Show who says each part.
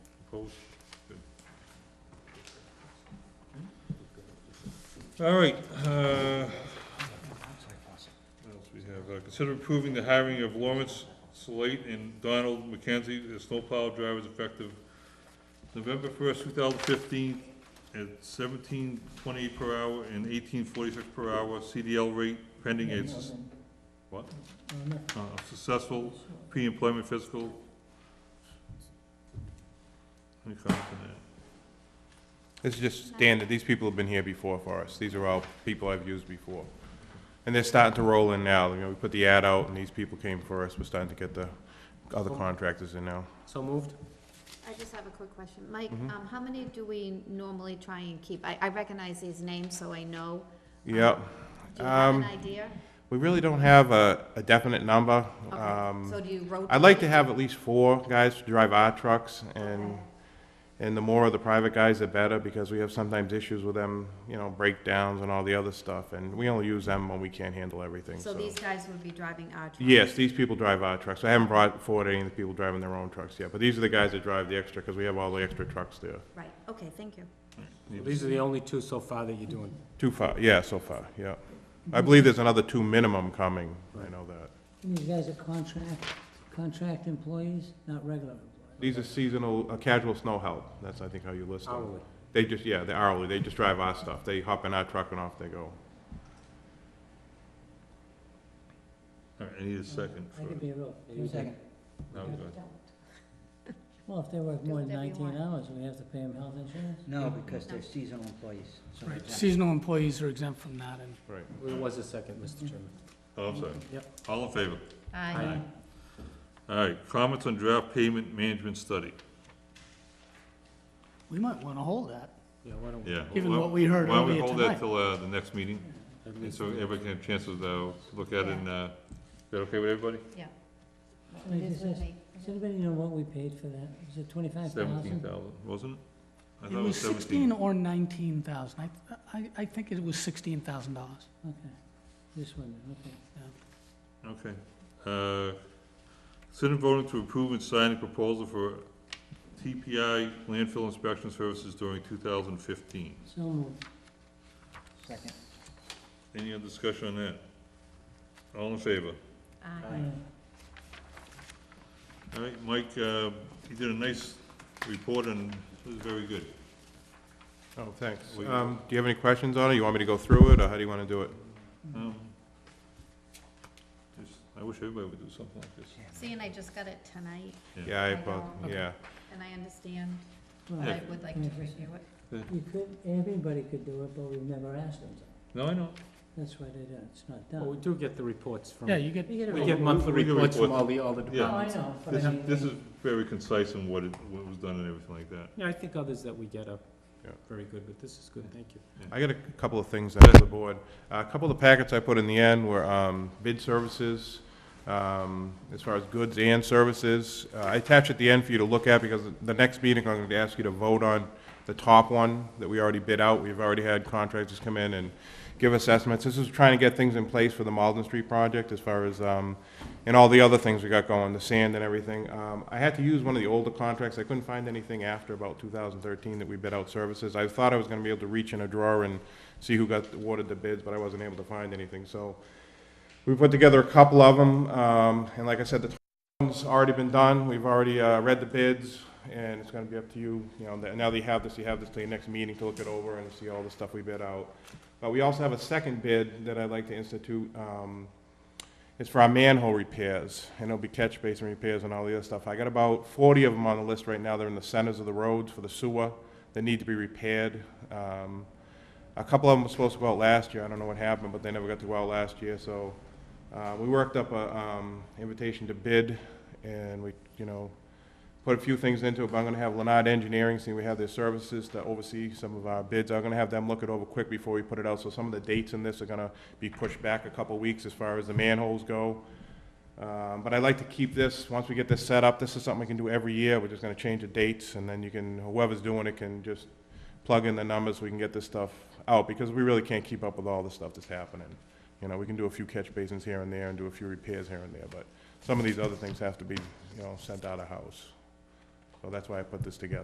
Speaker 1: Opposed? Good. All right, uh, what else we have? Uh, Consider approving the hiring of Lawrence Slate and Donald McKenzie as snowplow drivers effective November first, two thousand fifteen, at seventeen twenty per hour and eighteen forty-six per hour, CDL rate pending a, sus- what? Uh, successful pre-employment physical. Any comments on that?
Speaker 2: This is just standard, these people have been here before for us, these are all people I've used before. And they're starting to roll in now, you know, we put the ad out, and these people came for us, we're starting to get the other contractors in now.
Speaker 3: So moved?
Speaker 4: I just have a quick question. Mike,
Speaker 2: Mm-hmm.
Speaker 4: um, how many do we normally try and keep? I, I recognize these names, so I know.
Speaker 2: Yep,
Speaker 4: Do you have an
Speaker 2: Um,
Speaker 4: idea?
Speaker 2: we really don't have a, a definite number.
Speaker 4: Okay,
Speaker 2: Um,
Speaker 4: so do you rotate?
Speaker 2: I'd like to have at least four guys to drive our trucks, and, and the more of the private guys, the better, because we have sometimes issues with them, you know, breakdowns and all the other stuff, and we only use them when we can't handle everything,
Speaker 4: So these guys would be driving our truck?
Speaker 2: Yes, these people drive our trucks. I haven't brought forward any of the people driving their own trucks yet, but these are the guys that drive the extra, because we have all the extra trucks there.
Speaker 4: Right, okay, thank you.
Speaker 3: So These are the only two so far that you're doing.
Speaker 2: Too far, yeah, so far, yeah. I believe there's another two minimum coming, I know that.
Speaker 5: And These guys are contract, contract employees, not regular employees.
Speaker 2: These are seasonal, uh, casual snow help, that's, I think, how you list them.
Speaker 3: Hourly.
Speaker 2: They just, yeah, they're hourly, they just drive our stuff. They hop in our truck and off they go.
Speaker 1: All right, I need a second
Speaker 5: I could
Speaker 1: for,
Speaker 5: be a real,
Speaker 3: Yeah, you
Speaker 5: two second.
Speaker 1: no, go ahead.
Speaker 5: Well, if they work
Speaker 4: Do
Speaker 5: more than
Speaker 4: whatever you
Speaker 5: nineteen
Speaker 4: want.
Speaker 5: hours, we have to pay them health insurance?
Speaker 6: No, because they're seasonal employees. so they're
Speaker 7: Right,
Speaker 6: exempt.
Speaker 7: seasonal employees are exempt from that, and
Speaker 2: Right.
Speaker 3: There was a second, Mr. Chairman.
Speaker 1: Oh, I'm sorry.
Speaker 3: Yep.
Speaker 1: All in favor?
Speaker 4: Aye.
Speaker 1: All right, comments on draft payment management study,
Speaker 7: we might want to hold that,
Speaker 3: Yeah, why don't we?
Speaker 1: yeah.
Speaker 7: given
Speaker 1: Why-
Speaker 7: what we heard
Speaker 1: Why don't we
Speaker 7: earlier
Speaker 1: hold that
Speaker 7: tonight.
Speaker 1: till, uh, the next meeting, and
Speaker 3: Everybody's-
Speaker 1: so everybody can have chances to look at it and, uh, is that okay with everybody?
Speaker 4: Yeah.
Speaker 5: Let me
Speaker 4: It is
Speaker 5: just ask-
Speaker 4: with me.
Speaker 5: Does anybody know what we paid for that? Was it twenty-five
Speaker 1: Seventeen
Speaker 5: thousand?
Speaker 1: thousand, wasn't it? I
Speaker 7: It
Speaker 1: thought
Speaker 7: was sixteen
Speaker 1: seventeen.
Speaker 7: or nineteen thousand, I, I, I think it was sixteen thousand dollars.
Speaker 5: Okay, this one, okay.
Speaker 1: Okay. Uh, Consider voting to approve and sign a proposal for TPI landfill inspection services during two thousand fifteen.
Speaker 5: So um, moved.
Speaker 6: Second.
Speaker 1: Any other discussion on that? All in favor?
Speaker 4: Aye.
Speaker 5: Aye.
Speaker 1: All right, Mike, uh, you did a nice report and it was very good.
Speaker 2: Oh, thanks.
Speaker 1: We-
Speaker 2: Um, do you have any questions on it? You want me to go through it, or how do you want to do it?
Speaker 1: Um, just- I wish everybody would do something like this.
Speaker 4: See, and I just got it tonight,
Speaker 2: Yeah, I,
Speaker 4: I know.
Speaker 2: both- yeah.
Speaker 4: and I understand, but
Speaker 5: Well,
Speaker 4: I would like to review it.
Speaker 5: you could, everybody could do it, but we've never asked them to.
Speaker 1: No, I know.
Speaker 5: That's why they don't, it's not
Speaker 3: Well, we
Speaker 5: done.
Speaker 3: do get the reports from,
Speaker 7: Yeah,
Speaker 3: we
Speaker 7: you get,
Speaker 5: You get it
Speaker 1: We
Speaker 5: all.
Speaker 3: get
Speaker 1: we-
Speaker 3: monthly
Speaker 1: we get
Speaker 3: reports from
Speaker 1: reports.
Speaker 3: all the, all the
Speaker 5: Oh, I
Speaker 3: departments.
Speaker 5: know. but
Speaker 1: This
Speaker 5: I
Speaker 1: is,
Speaker 5: mean,
Speaker 1: this is very concise in what it, what was done and everything like that.
Speaker 3: Yeah, I think others that we get are
Speaker 2: Yeah.
Speaker 3: very good, but this is good, thank you.
Speaker 2: I got a couple of things out of the board. Uh, A couple of the packets I put in the end were um, bid services, um, as far as goods and services. Uh, I attached at the end for you to look at, because the next meeting, I'm going to ask you to vote on the top one that we already bid out. We've already had contractors come in and give us estimates. This is trying to get things in place for the Malden Street project, as far as, um, and all the other things we got going, the sand and everything. Um, I had to use one of the older contracts. I couldn't find anything after about 2013 that we bid out services. I thought I was going to be able to reach in a drawer and see who got awarded the bids, but I wasn't able to find anything. So we put together a couple of them, um, and like I said, the top one's already been done. We've already uh, read the bids, and it's going to be up to you. You know, now that you have this, you have this till your next meeting to look it over and see all the stuff we bid out. But we also have a second bid that I'd like to institute, um, it's for our manhole repairs, and it'll be catch basin repairs and all the other stuff. I got about forty of them on the list right now, they're in the centers of the roads for the sewer, that need to be repaired. Um, a couple of them were supposed to go out last year, I don't know what happened, but they never got to go out last year, so, uh, we worked up a, um, invitation to bid, and we, you know, put a few things into it, but I'm gonna have Leonard Engineering, see, we have their services to oversee some of our bids. I'm gonna have them look it over quick before we put it out, so some of the dates in this are gonna be pushed back a couple weeks as far as the manholes go. Um, but I like to keep this, once we get this set up, this is something we can do every year, we're just gonna change the dates, and then you can, whoever's doing it can just plug in the numbers, so we can get this stuff out, because we really can't keep up with all the stuff that's happening. You know, we can do a few catch basins here and there, and do a few repairs here and there, but some of these other things have to be, you know, sent out of house. So that's why I put this together.